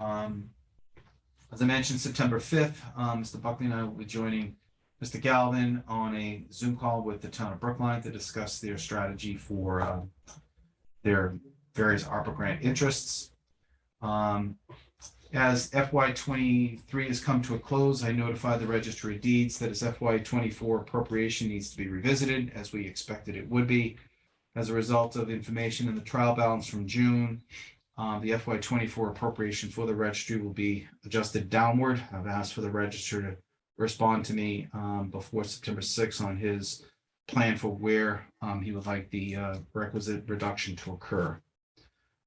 Um, As I mentioned, September fifth, Mr. Buckley and I will be joining Mr. Galvin on a Zoom call with the town of Brookline to discuss their strategy for uh, their various ARPA grant interests. Um, As FY twenty-three has come to a close, I notified the registry of deeds that its FY twenty-four appropriation needs to be revisited, as we expected it would be. As a result of information in the trial balance from June, um, the FY twenty-four appropriation for the registry will be adjusted downward. I've asked for the register to respond to me, um, before September sixth on his plan for where, um, he would like the, uh, requisite reduction to occur.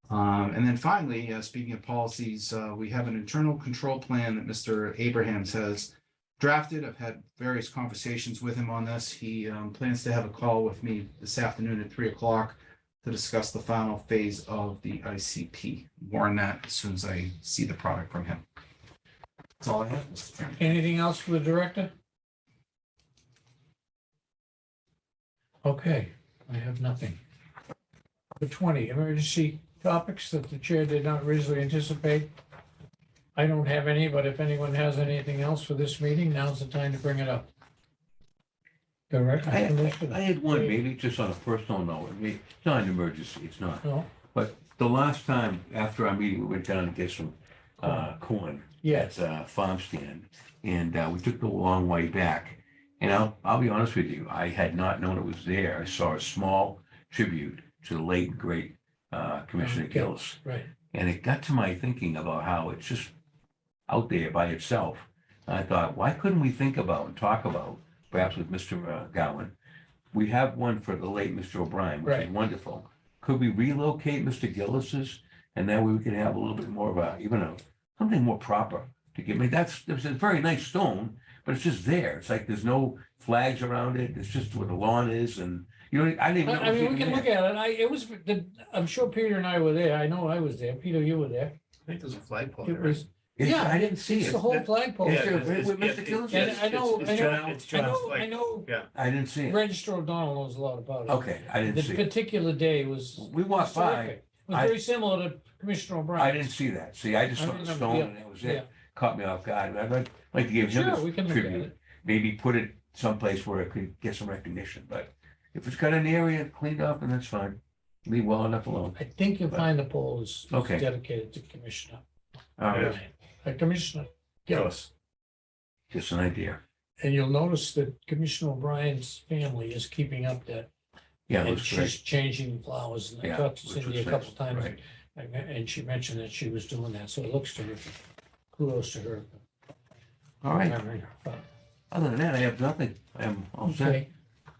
Um, and then finally, uh, speaking of policies, uh, we have an internal control plan that Mr. Abrahams has drafted. I've had various conversations with him on this. He, um, plans to have a call with me this afternoon at three o'clock to discuss the final phase of the ICP. Warn that as soon as I see the product from him. That's all I have, Mr. Chairman. Anything else for the director? Okay, I have nothing. Number twenty, emergency topics that the chair did not reasonably anticipate. I don't have any, but if anyone has anything else for this meeting, now's the time to bring it up. Director, I- I Commissioner, had one, maybe just on a personal note, I mean, it's not an emergency, it's not. no, The last time after our meeting, we went down and get some uh, corn yes, at a farm stand. And uh, we took the long way back. And I'll, I'll be honest with you, I had not known it was there. I saw a small tribute to the late, great uh, Commissioner Okay. Gillis. right, And it got to my thinking about how it's just out there by itself. And I thought, why couldn't we think about and talk about, perhaps with Mr. uh, Gowan? We have one for the late Mr. O'Brien, which is Right. wonderful. Could we relocate Mr. Gillis's? And that way we could have a little bit more of a, even a, something more proper to give me. That's, it's a very nice stone, but it's just there. It's like there's no flags around it. It's just where the lawn is and, you know, I didn't I even know. it I was mean, we even can there. look at it, I, it was, the- I'm sure Peter and I were there, I know I was there, Peter, you were there, I think there's a flagpole. it there, was, It's- yeah, I didn't see it's it. the whole flagpole. Oh, Yeah, It's your- it's- with yeah, Mr. it- Gillis? And it's- I know, it's I know, John- it's I John's know, I flag. know I didn't see it. Register O'Donnell knows a lot about it. Okay, I didn't see The it. particular day was. We walked by. terrific. It was I- very similar to Commissioner I O'Brien. didn't see that. See, I just I saw the remember, stone yeah, and that was Yeah, it. Caught me off guard. I'd like- like to give him sure, we his can look at tribute. it. Maybe put it someplace where it could get some recognition, but if it's got an area cleaned up, and that's fine. Leave well enough alone. I think you'll find the poll is is Okay. dedicated to Commissioner. All right, O'Brien. Uh, Commissioner Gillis. just an idea. And you'll notice that Commissioner O'Brien's family is keeping up that. Yeah, it And was great. she's changing flowers. And I Yeah, talked to which Cindy a was couple nice, times right. and- and she mentioned that she was doing that. So it looks terrific. Kudos to her. All right, Remembering her father. other than that, I have nothing. I'm all set. Okay.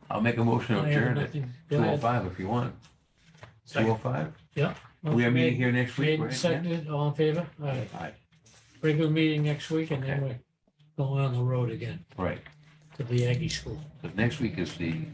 I'll make a motion to I have adjourn at nothing. two Go oh ahead. five if you want. Two Second. oh five? We are meeting here next Made week, and right? Yeah? seconded, all in favor? All right, Aye. regular meeting next week and then we're going on the road again Right, to the Aggie School. but next week is the